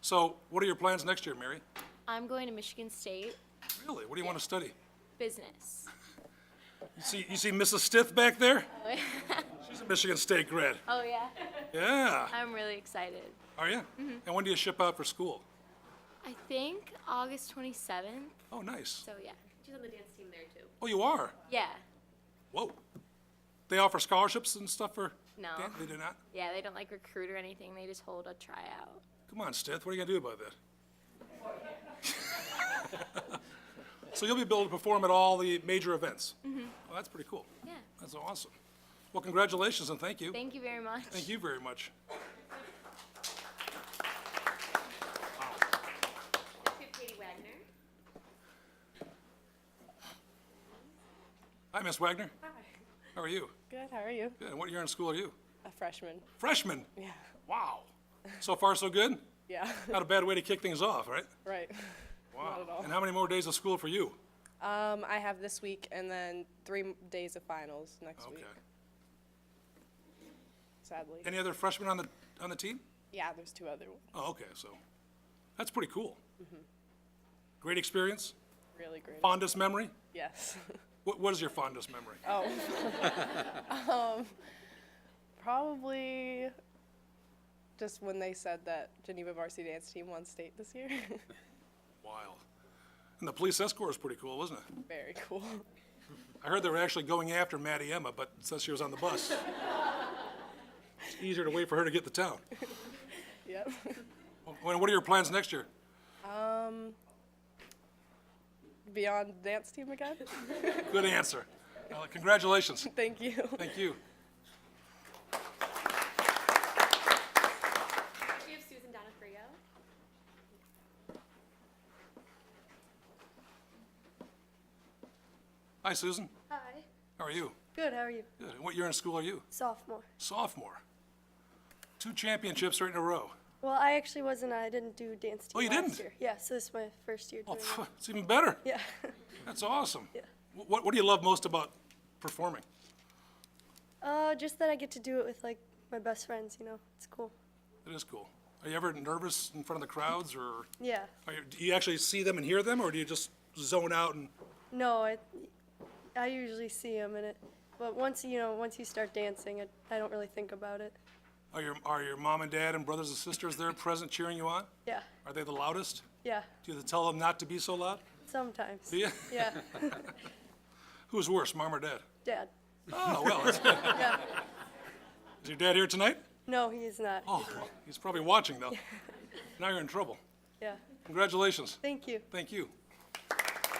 So what are your plans next year, Mary? I'm going to Michigan State Really? What do you want to study? business. You see, you see Mrs. Stith back there? She's a Michigan State grad. Oh, yeah. Yeah. I'm really excited. Are you? And when do you ship out for school? I think August 27th. Oh, nice. So, yeah. She's on the dance team there too. Oh, you are? Yeah. Whoa. They offer scholarships and stuff for? No. Dan- They do not? Yeah, they don't like recruit or anything. They just hold a tryout. Come on, Stith, what are you gonna do about that? So you'll be able to perform at all the major events? Mm-hmm. Well, that's pretty cool. Yeah. That's awesome. Well, congratulations and thank you. Thank you very much. Thank you very much. Next we have Katie Wagner. Hi, Miss Wagner. Hi. How are you? Good, how are you? Good. And what year in school are you? A freshman. Freshman? Yeah. Wow. So far, so good? Yeah, Not a bad way to kick things off, right? right. Wow. at all. And how many more days of school for you? Um, I have this week and then three m- days of finals next Okay. week, sadly. Any other freshmen on the, on the team? Yeah, there's two other ones. Oh, okay, so, that's pretty cool. Great experience? Really great. Fondest memory? Yes. What, what is your fondest memory? oh. um, probably just when they said that Geneva Varsity Dance Team won state this year. Wild. And the police escort was pretty cool, wasn't it? Very cool. I heard they were actually going after Maddie Emma, but since she was on the bus, it's easier to wait for her to get to town. Yep. Well, What are your plans next year? Beyond dance team again? Good answer. Well, Congratulations. Thank you. Thank you. Next we have Susan Donofrio. Hi, Susan. Hi. How are you? Good, how are you? Good. And What year in school are you? Sophomore. Sophomore. Two championships right in a row. Well, I actually wasn't, I didn't do dance team Oh, you last didn't? year. Yeah, so this is my first year Oh, doing phew, it's even better. it. Yeah. That's awesome. Wh- What, what do you love most about performing? Uh, just that I get to do it with like my best friends, you know. It's cool. It is cool. Are you ever nervous in front of the crowds, or Yeah. are you, do you actually see them and hear them, or do you just zone out and, No, I I usually see them in it. But once, you know, once you start dancing, I, I don't really think about it. are your, are your mom and dad and brothers and sisters there present cheering you on? Yeah. Are they the loudest? Yeah. Do you have to tell them not to be so loud? Sometimes. Yeah. Yeah. Who's worse, mom or dad? Dad. Oh, well, that's good. Yeah. Is your dad here tonight? No, he is not. Oh, he's probably watching, though. Now you're in trouble. Yeah. Congratulations. Thank you. Thank you. All right,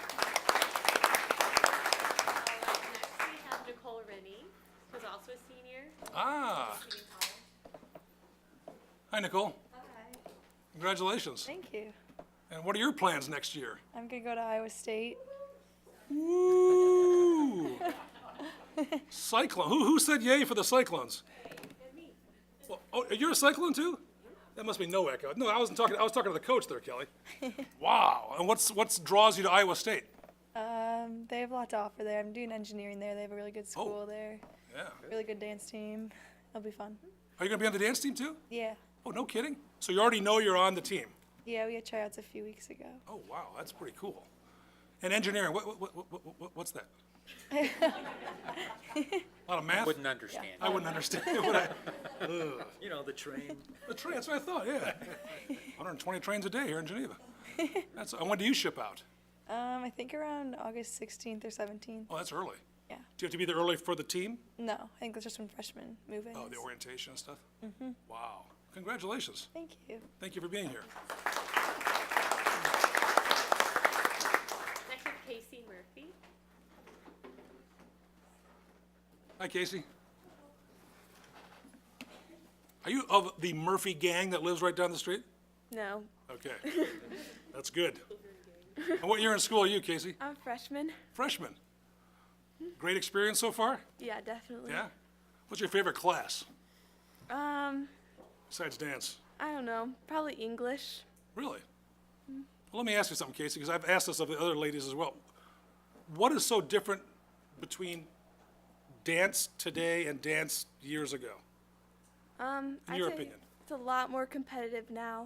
next we have Nicole Rennie, who's also a senior. Ah, Community college. hi, Nicole. Congratulations. Thank you. And what are your plans next year? I'm going to go to Iowa State. Woo! Cyclone. Who, who said yay for the Cyclones? Well, oh, you're a Cyclone too? That must be no echo. No, I wasn't talking. I was talking to the coach there, Kelly. wow. And what's what's draws you to Iowa State? Um, they have a lot to offer there. I'm doing engineering there. They have a really good school there, Oh. Yeah. really good dance team. It'll be fun. Are you gonna be on the dance team too? Yeah, Oh, no kidding. So you already know you're on the team. yeah. We had tryouts a few weeks ago. Oh, wow. That's pretty cool. And engineering. What, what, what, what, what what's that? a lot of math. Wouldn't understand. I wouldn't understand. Would I? You know, the train. The train, that's what I thought, yeah. 120 trains a day here in Geneva. That's, and when do you ship out? Um, I think around August 16th or 17th. Oh, that's early. Yeah. Do you have to be there early for the team? No, I think that's just when freshmen move in. Oh, the orientation and stuff? Mm-hmm. Wow. Congratulations. Thank you. Thank you for being here. Next we have Casey Murphy. Hi, Casey. Are you of the Murphy gang that lives right down the street? No, Okay. That's good. And what year in school are you, Casey? I'm a freshman. Freshman. Great experience so far? Yeah, definitely. Yeah? What's your favorite class Um, besides dance? I don't know. Probably English. Really? Well, let me ask you something, Casey, because I've asked this of the other ladies as well. What is so different between dance today and dance years ago? Um, In I'd your Um, say opinion. it's a lot more competitive now.